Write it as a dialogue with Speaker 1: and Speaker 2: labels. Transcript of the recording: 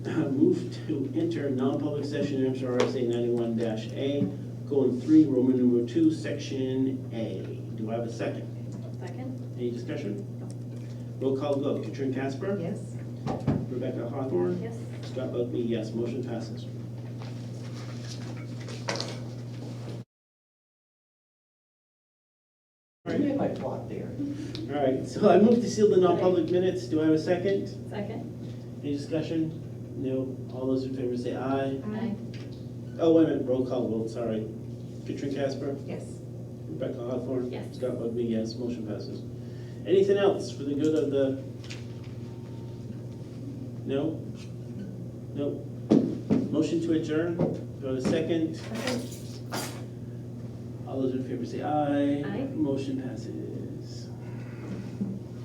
Speaker 1: Move to enter non-public session MRSA ninety-one dash A, colon three, Roman numeral two, section A. Do I have a second?
Speaker 2: Second?
Speaker 1: Any discussion? Roll call vote, Katrin Casper?
Speaker 2: Yes.
Speaker 1: Rebecca Hawthorne?
Speaker 2: Yes.
Speaker 1: Scott Buckby, yes, motion passes.
Speaker 3: I made my plot there.
Speaker 1: All right, so I move to seal the non-public minutes. Do I have a second?
Speaker 2: Second?
Speaker 1: Any discussion? No. All those in favor say aye. Oh, wait a minute, roll call vote, sorry. Katrin Casper?
Speaker 2: Yes.
Speaker 1: Rebecca Hawthorne?
Speaker 2: Yes.
Speaker 1: Scott Bugby, yes, motion passes. Anything else for the good of the? No? No. Motion to adjourn, go to second. All those in favor say aye.
Speaker 2: Aye.
Speaker 1: Motion passes.